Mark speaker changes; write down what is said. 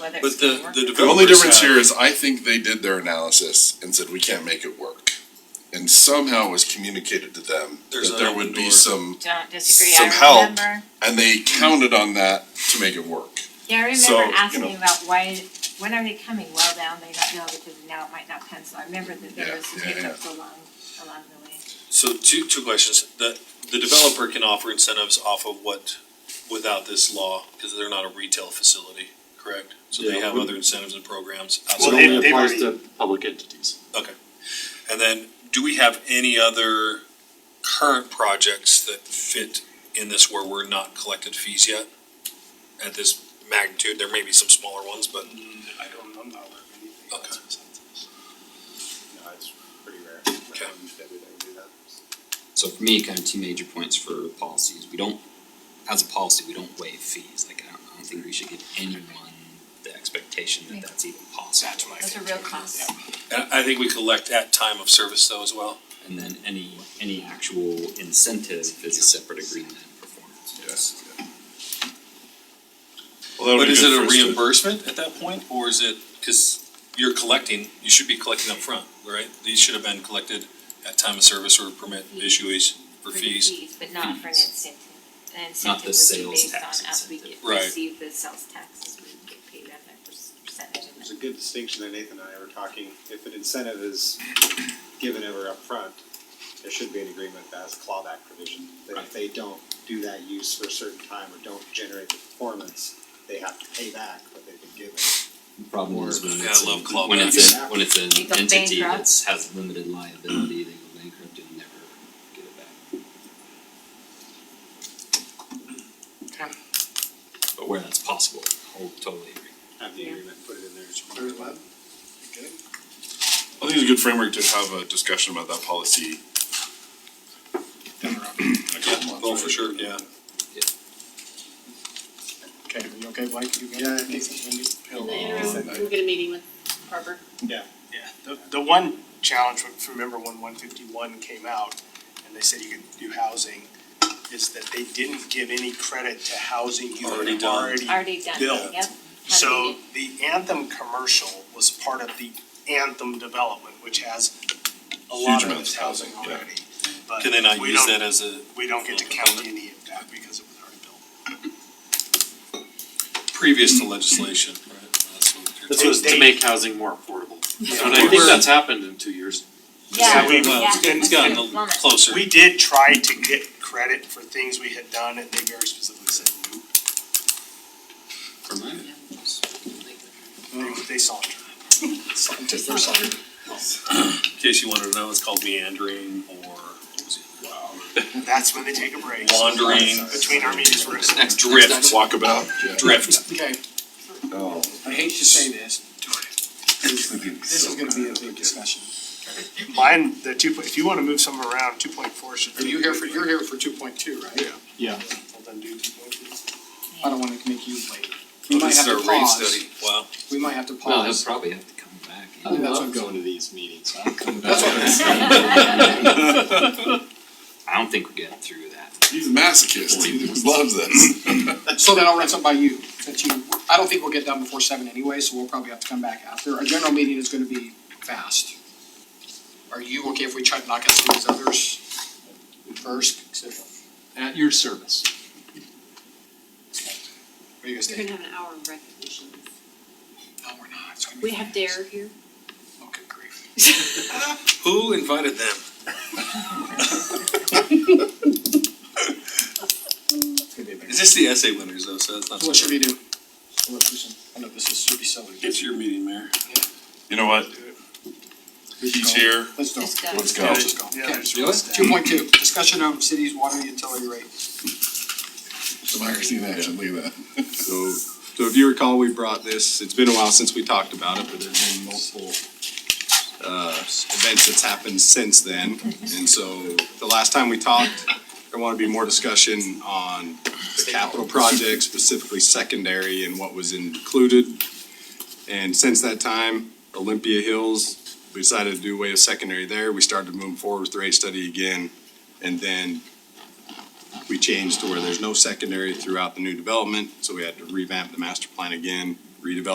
Speaker 1: whether it's
Speaker 2: But
Speaker 1: gonna
Speaker 2: the,
Speaker 1: work.
Speaker 2: the
Speaker 3: The only
Speaker 2: developers
Speaker 3: difference here
Speaker 2: have,
Speaker 3: is I think they did their analysis and said, we can't make it work. And somehow it was communicated to them
Speaker 2: There's
Speaker 3: that
Speaker 2: an
Speaker 3: there would be
Speaker 2: open door.
Speaker 3: some,
Speaker 1: Don't disagree,
Speaker 3: some
Speaker 1: I
Speaker 3: help.
Speaker 1: remember,
Speaker 3: and they counted on that to make it work.
Speaker 1: yeah, I
Speaker 3: So, you
Speaker 1: remember asking
Speaker 3: know.
Speaker 1: about why, when are they coming, well, now they don't know because now it might not pencil, I remember that
Speaker 3: Yeah,
Speaker 1: there was some
Speaker 3: yeah, yeah.
Speaker 1: hiccups along, along the way.
Speaker 2: so two, two questions. The, the developer can offer incentives off of what, without this law, because they're not a retail facility, correct? So they
Speaker 4: Yeah.
Speaker 2: have other incentives and programs
Speaker 4: So
Speaker 2: outside
Speaker 4: it
Speaker 2: of
Speaker 5: they-
Speaker 2: that.
Speaker 4: only
Speaker 5: they've
Speaker 4: applies
Speaker 5: already-
Speaker 4: to public entities.
Speaker 2: And then, do we have any other current projects that fit in this where we're not collected fees yet? At this magnitude, there may be some smaller ones, but
Speaker 5: I don't know about anything
Speaker 2: Okay.
Speaker 5: else besides this. No, it's pretty rare. that
Speaker 2: Okay.
Speaker 5: we- That we don't do that.
Speaker 6: So for me, kind of two major points for policies, we don't, as a policy, we don't waive fees, like I don't, I don't think we should give anyone the expectation that that's even possible. That's my
Speaker 1: Those are real costs.
Speaker 2: I, I think we collect at time of service though as well.
Speaker 6: And then any, any actual incentive is a separate agreement and performance.
Speaker 3: Yes.
Speaker 2: But is it a reimbursement at that point, or is it, cause you're collecting, you should be collecting up front, right? These should have been collected at time of service or permit issues for
Speaker 1: the
Speaker 2: fees.
Speaker 1: But not for an
Speaker 6: Fees.
Speaker 1: incentive, an
Speaker 6: Not
Speaker 1: incentive
Speaker 6: the
Speaker 1: would be
Speaker 6: sales
Speaker 1: based on
Speaker 6: tax
Speaker 1: us, we get,
Speaker 6: incentive.
Speaker 2: Right.
Speaker 1: receive the sales taxes, we would get paid on that per- percentage and
Speaker 5: There's a good distinction that Nathan and I were talking, if an incentive is given ever upfront, there should be an agreement that has a clawback provision, that if they don't do that use for a certain time or don't generate the performance, they have to pay back what they've been given.
Speaker 6: The Problem is when
Speaker 2: Yeah, I
Speaker 6: it's,
Speaker 2: love
Speaker 6: a- when it's, a-
Speaker 5: clawbacks.
Speaker 6: when it's
Speaker 1: They
Speaker 6: an
Speaker 1: go
Speaker 6: entity
Speaker 1: bankrupt.
Speaker 6: that's, has limited liability, they go bankrupt and never get it back. But where that's possible, I'll totally agree.
Speaker 5: Have the
Speaker 1: Yeah.
Speaker 5: agreement, put it in there.
Speaker 3: I think it's a good framework to have a discussion about that policy. in a couple months,
Speaker 2: Oh, for
Speaker 3: right?
Speaker 2: sure, yeah.
Speaker 5: Okay, are you okay, Mike? You Yeah, I think uh,
Speaker 7: In the interim, we'll get a meeting with Harper.
Speaker 5: Yeah.
Speaker 8: The, the one challenge, if you remember when one fifty-one came out and they said you could do housing, is that they didn't give any credit to housing you had
Speaker 2: Already
Speaker 8: already.
Speaker 2: done.
Speaker 1: already done, yep.
Speaker 8: Built. So the Anthem commercial was part of the Anthem development, which has a lot of
Speaker 3: amounts
Speaker 8: its
Speaker 3: of
Speaker 8: housing
Speaker 3: housing, yeah.
Speaker 8: already.
Speaker 2: Can they not
Speaker 8: But we
Speaker 2: use
Speaker 8: don't-
Speaker 2: that as a
Speaker 8: We don't get to count any of that because it was already built.
Speaker 2: previous to legislation, right? That's what you're
Speaker 8: That's
Speaker 4: This was
Speaker 2: talking
Speaker 4: to
Speaker 8: they-
Speaker 4: make housing more affordable. And I think
Speaker 2: We're-
Speaker 4: that's happened in two years.
Speaker 1: Yeah,
Speaker 8: So we-
Speaker 1: yeah.
Speaker 2: Well, uh, it's- it's gotten a-
Speaker 1: Plummet.
Speaker 2: closer.
Speaker 8: We did try to get credit for things we had done and they very specifically said no.
Speaker 6: For mine, yeah, just like-
Speaker 8: They- Mm, They saunter. Saunter, they're sauntering.
Speaker 2: In case you wanted to know, it's called meandering or what was it?
Speaker 8: That's when they take a break.
Speaker 2: Wandering.
Speaker 8: Between our meetings, we're gonna.
Speaker 6: Next,
Speaker 2: drift,
Speaker 3: Walkabout, yeah.
Speaker 2: drift.
Speaker 5: Okay,
Speaker 3: Oh.
Speaker 5: I hate to say this, this is gonna be a big discussion.
Speaker 8: Mine, the two, point- if you wanna move some around, two point four should.
Speaker 5: Are you here for, you're here for two point two, right? Yeah.
Speaker 4: Yeah.
Speaker 8: Well, then do two point two.
Speaker 5: I don't wanna make you wait. We
Speaker 2: Oh,
Speaker 5: might
Speaker 2: This
Speaker 5: have
Speaker 2: is
Speaker 5: to
Speaker 2: our rate
Speaker 5: pause,
Speaker 2: study, wow.
Speaker 5: we might have to
Speaker 6: Well, he'll
Speaker 5: pause.
Speaker 6: probably have to come back.
Speaker 4: I
Speaker 5: think that's what-
Speaker 4: love going to these meetings. I'm coming
Speaker 5: That's
Speaker 4: back.
Speaker 5: what
Speaker 6: I don't think we're getting through that.
Speaker 3: He's a masochist, he loves this.
Speaker 5: So then I'll run something by you, that you, I don't think we'll get done before seven anyway, so we'll probably have to come back after. Our general meeting is gonna be fast. Are you okay if we try to knock out some of these others first? 'Cause if-
Speaker 4: At your service.
Speaker 5: What do you guys
Speaker 7: You're
Speaker 5: think?
Speaker 7: gonna have an hour of recognitions.
Speaker 5: No, we're not, it's gonna be.
Speaker 7: We have Dare here.
Speaker 5: fast. Oh, good grief.
Speaker 2: Who invited them?
Speaker 5: It's gonna be a big.
Speaker 2: Is this the essay winners though, so that's not.
Speaker 5: What should we do? What should we do? I know this is, should be silly.
Speaker 2: It's your meeting, Mayor.
Speaker 3: You know what, he's here,
Speaker 5: Let's go.
Speaker 1: Let's go.
Speaker 3: let's go.
Speaker 5: Yeah, let's go.
Speaker 8: Yeah,
Speaker 5: Okay.
Speaker 6: Do it.
Speaker 5: Two point two, discussion of city's water utility rate.
Speaker 3: Democracy in action, look at that.
Speaker 9: So, so if you recall, we brought this, it's been a while since we talked about it, but there's been multiple uh, events that's happened since then. And so the last time we talked, there wanted to be more discussion on the capital project, specifically secondary and what was included. And since that time, Olympia Hills, we decided to do away with secondary there. We started to move forward with the rate study again. And then we changed to where there's no secondary throughout the new development, so we had to revamp the master plan again, redevelop